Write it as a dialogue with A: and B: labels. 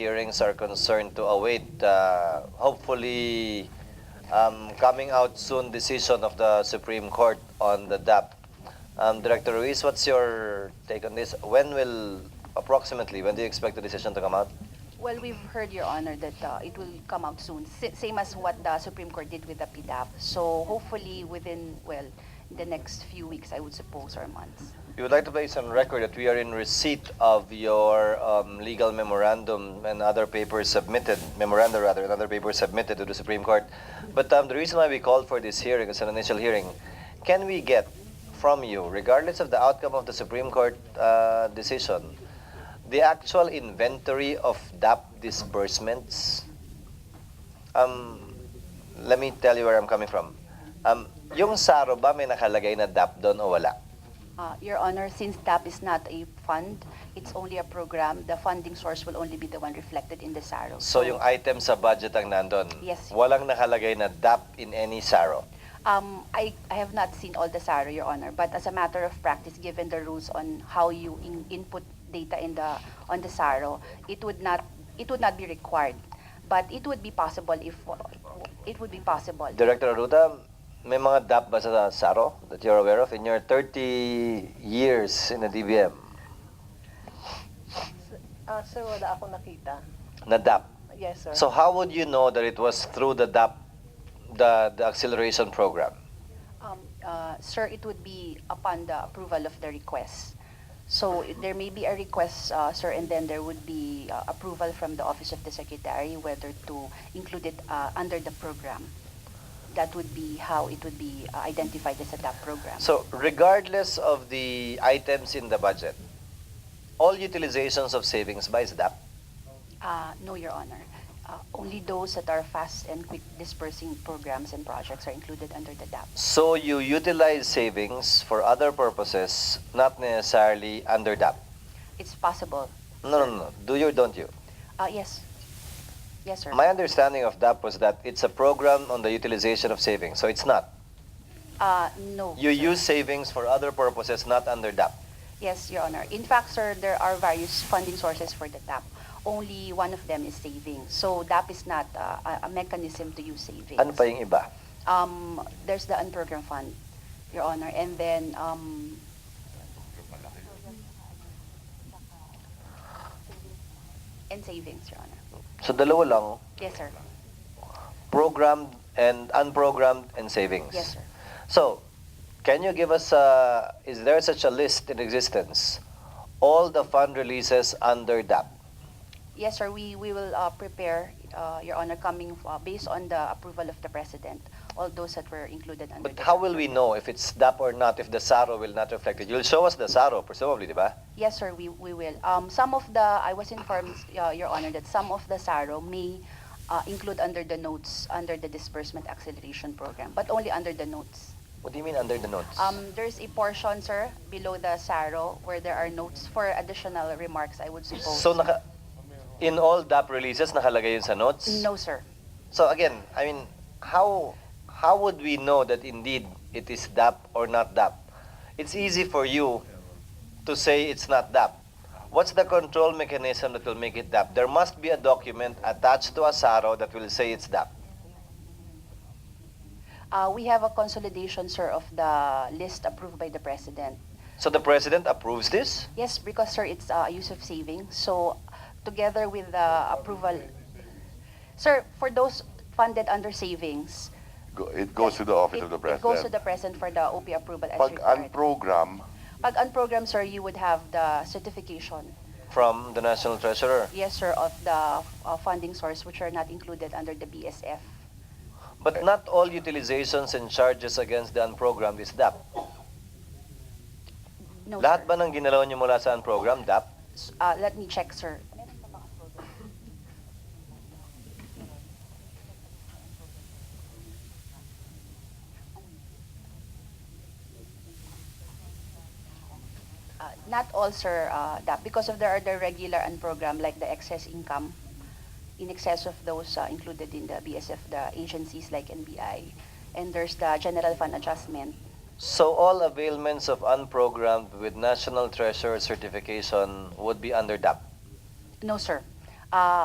A: hearings are concerned to await uh, hopefully um, coming out soon decision of the Supreme Court on the DAP. Um, Director Ruiz, what's your take on this? When will approximately when do you expect the decision to come out?
B: Well, we've heard, Your Honor, that uh, it will come out soon, S- same as what the Supreme Court did with the PDAP. So hopefully within, well, the next few weeks, I would suppose, or months.
A: We would like to place on record that we are in receipt of your um, legal memorandum and other papers submitted, memoranda rather, and other papers submitted to the Supreme Court. But um, the reason why we called for this hearing, it's an initial hearing, can we get from you, regardless of the outcome of the Supreme Court uh, decision, the actual inventory of DAP disbursements? Um, let me tell you where I'm coming from. Um, yung SARO ba may nakalagay na DAP doon o wala?
B: Uh, Your Honor, since TAP is not a fund, it's only a program, the funding source will only be the one reflected in the SARO.
A: So yung item sa budget ang nandun?
B: Yes.
A: Walang nakalagay na DAP in any SARO?
B: Um, I, I have not seen all the SARO, Your Honor, but as a matter of practice, given the rules on how you in, input data in the, on the SARO, it would not, it would not be required. But it would be possible if, it would be possible.
A: Director Aruta, may mga DAP ba sa SARO that you're aware of in your 30 years in the DBM?
C: Ah, sir, wala ako nakita.
A: Na DAP?
C: Yes, sir.
A: So how would you know that it was through the DAP, the, the acceleration program?
B: Um, uh, Sir, it would be upon the approval of the request. So i- there may be a request, uh, sir, and then there would be uh, approval from the Office of the Secretary whether to include it uh, under the program. That would be how it would be uh, identified as a DAP program.
A: So regardless of the items in the budget, all utilizations of savings by is DAP?
B: Uh, No, Your Honor. Uh, Only those that are fast and quick dispersing programs and projects are included under the DAP.
A: So you utilize savings for other purposes, not necessarily under DAP.
B: It's possible.
A: No, no, no. Do you or don't you?
B: Uh, Yes. Yes, sir.
A: My understanding of DAP was that it's a program on the utilization of savings. So it's not.
B: Uh, No.
A: You
B: sir.
A: use savings for other purposes, not under DAP.
B: Yes, Your Honor. In fact, sir, there are various funding sources for the TAP. Only one of them is savings. So TAP is not uh, a- a mechanism to use savings.
A: Ano pa yung iba?
B: Um, there's the unprogrammed fund, Your Honor, and then um, and savings, Your Honor.
A: So dalawa lang,
B: Yes, sir.
A: programmed and unprogrammed and savings.
B: Yes, sir.
A: So, can you give us a, is there such a list in existence? All the fund releases under DAP.
B: Yes, sir. We we will uh, prepare, uh, Your Honor, coming uh, based on the approval of the president, all those that were included under.
A: But
B: the
A: how
B: TAP
A: will we
B: program.
A: know if it's DAP or not if the SARO will not reflect it? You'll show us the SARO, presumably, di ba?
B: Yes, sir, we, we will. Um, some of the, I was informed, uh, Your Honor, that some of the SARO may uh, include under the notes, under the disbursement acceleration program, but only under the notes.
A: What do you mean under the notes?
B: Um, there's a portion, sir, below the SARO where there are notes for additional remarks, I would suppose.
A: so, naka, in all DAP releases, nakalagay yun sa notes?
B: No, sir.
A: So again, I mean, how, how would we know that indeed it is DAP or not DAP? It's easy for you to say it's not DAP. What's the control mechanism that will make it DAP? There must be a document attached to a SARO that will say it's DAP.
B: Uh, we have a consolidation, sir, of the list approved by the president.
A: So the president approves this?
B: Yes, because sir, it's uh, use of savings. So together with the approval, sir, for those funded under savings,
D: Go- It goes to the office of the
B: It-
D: president.
B: It goes to the president for the OP approval as
D: Pag
B: required.
D: unprogram,
B: Pag unprogrammed, sir, you would have the certification,
A: from the National Treasurer.
B: yes, sir, of the uh, funding source which are not included under the BSF.
A: But not all utilizations and charges against the unprogrammed is DAP.
B: No,
A: Lahat
B: sir.
A: ba ng ginalaw niyo mula sa unprogrammed DAP?
B: S- uh, let me check, sir. Uh, Not all, sir, uh, that because of there are the regular and program like the excess income, in excess of those uh, included in the BSF, the agencies like NBI, and there's the general fund adjustment.
A: So all availments of unprogrammed with National Treasurer certification would be under DAP.
B: No, sir. Uh,